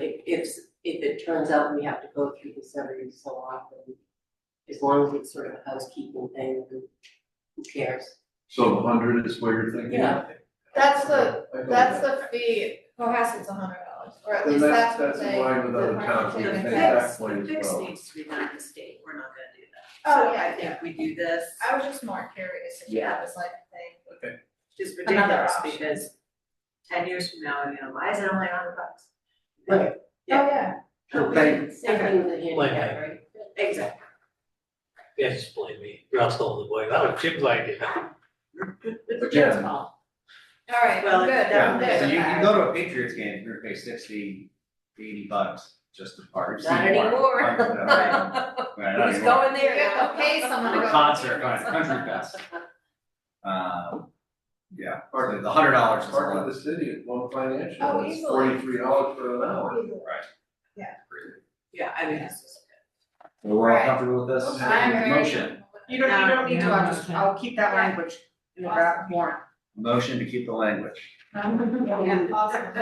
If, if, if it turns out we have to go through this every so often, as long as it's sort of a housekeeping thing, who who cares? So hundred is what you're thinking? Yeah. That's the, I don't that's know. the fee, Cohasset's a hundred dollars, or at Then least that's what that's they. in line with other towns, we the can take market did. that point as well. Fix needs to be done at the state, we're not gonna do that. Oh, So yeah, I think we do this, I was just more curious if that was like a thing. it's Another ridiculous option. Oh, because ten years from now, you know, why is it only a hundred bucks? Oh, yeah. Oh, we- Thank- Same thing with the handicap, Like- right? Exactly. Yeah, just blame me, Russell, the boy, that was Jim's idea. Again. All right, Well, good, Yeah, I'm good so with you that. can go to a Patriots game, you're gonna pay sixty, eighty bucks just to Not park. seat park. anymore. Right, Right, not Who's anymore. going there You have now? to pay someone to For go. a concert, going to country fest. Um, yeah, or the- the hundred dollars is a Part lot. of the city is low Oh, financial, it's easily. forty-three dollars for an hour. Yeah, I mean, it's just. So We're all Right. comfortable with this? I'm very. Motion, You don't, you don't need to, I'll just, No, I'll keep that language in the draft warrant. motion to keep the language. Yeah, awesome.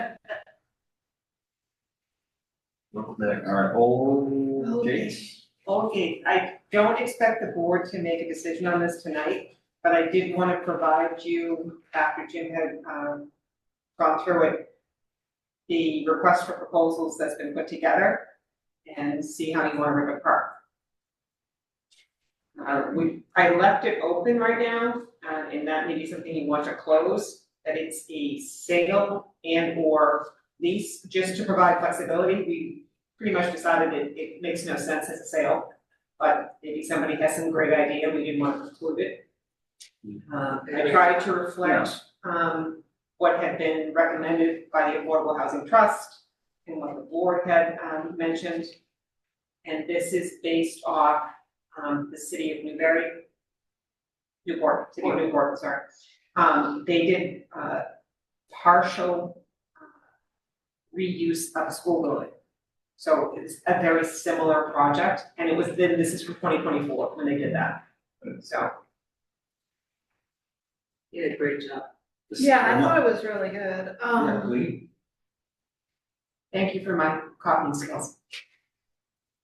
All right, old case. Okay, I don't expect the board to make a decision on this tonight, but I did wanna provide you, after Jim had, um, gone through it, the request for proposals that's been put together and see how you wanna rip it apart. Uh, we, I left it open right now, uh, and that may be something you want to close, that it's a sale and or lease, just to provide flexibility. We pretty much decided it, it makes no sense as a sale, but maybe somebody has some great idea, we didn't want to preclude it. Uh, I tried to reflect Yes. um, what had been recommended by the Affordable Housing Trust and what the board had, um, mentioned. And this is based off, um, the city of Newbury. Newport, city of Newport, sorry. Um, they did, uh, partial uh, reuse of a school building. So it's a very similar project and it was then, this is from twenty twenty-four when they did that. So, You did a great job. This- Yeah, I thought it was really good, Yeah, um, we- thank you for my copying skills.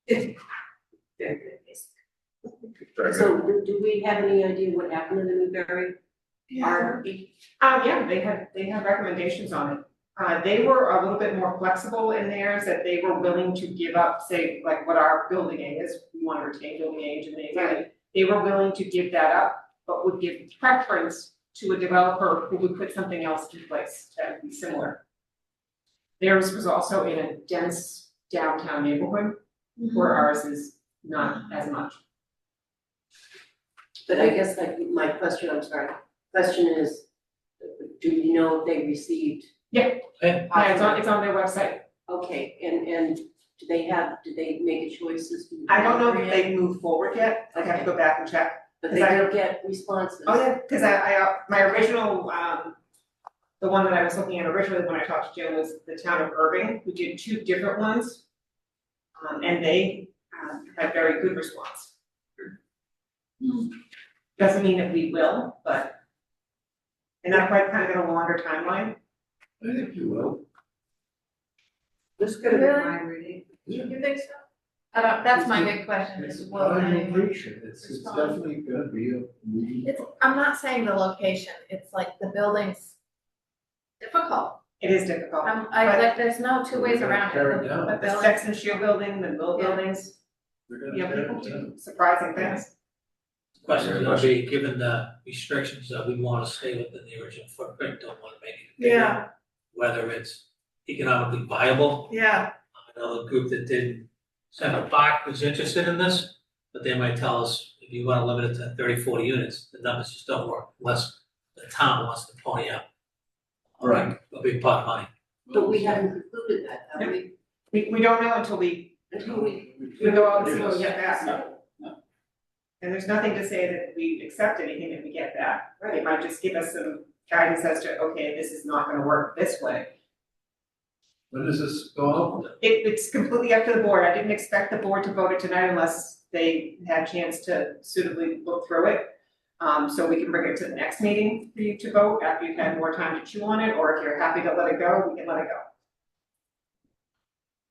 Very good, yes. So do- do we have any idea what happened to the Newberry yeah, RFP? Uh, yeah, they had, they had recommendations on it. Uh, they were a little bit more flexible in theirs, that they were willing to give up, say, like what our building A is, we want to retain building age and they, they were willing to give that up, but would give preference to a developer who would put something else in place that would be similar. Theirs was also in a dense downtown neighborhood, where ours is not as much. But I guess like my question, I'm sorry, question is, do you know if they received? Yeah. Uh, it's on, it's on their website. Okay, and, and do they have, did they make a choice as to? I don't know if they've moved forward yet, I'd have to go back and check. But they did get responses. Oh, yeah, because I, I, uh, my original, um, the one that I was looking at originally when I talked to Jim was the town of Irving, who did two different ones. Um, and they, um, had very good response. Doesn't mean that we will, but. And that might kind of get a longer timeline. I think you will. This could have Really? been my reading. Mm-hmm. you think so? I don't, that's my big question, It's is a what prime I- location. it's, it's Respond. definitely gonna be a meeting. It's, I'm not saying the location, it's like the building's difficult. It is difficult. I'm, I, like, there's no two ways around Tear it it, down. the But the building, Sex and Shield building, the mill Yeah. buildings, They're you gonna tear know, it people do down. surprising things. Question's gonna be, given the restrictions that we wanna stay within the original footprint, don't wanna make it bigger. Yeah. Whether it's economically viable, Yeah. another group that did Center Park was interested in this, but they might tell us, if you wanna limit it to 30, 40 units, the numbers just don't work unless the town wants to pony up. Right. A big pot of money. But we haven't concluded that, have we? We, we don't know until we, Until we. we go out and see Yes. what we get back. No, And there's nothing to say that we accept anything that we get back. It Right, might just give us some guidance as to, okay, this is not gonna work this way. When does this go out? It, it's completely up to the board. I didn't expect the board to vote it tonight unless they had a chance to suitably look through it. Um, so we can bring it to the next meeting for you to vote after you've had more time to chew on it, or if you're happy to let it go, we can let it go.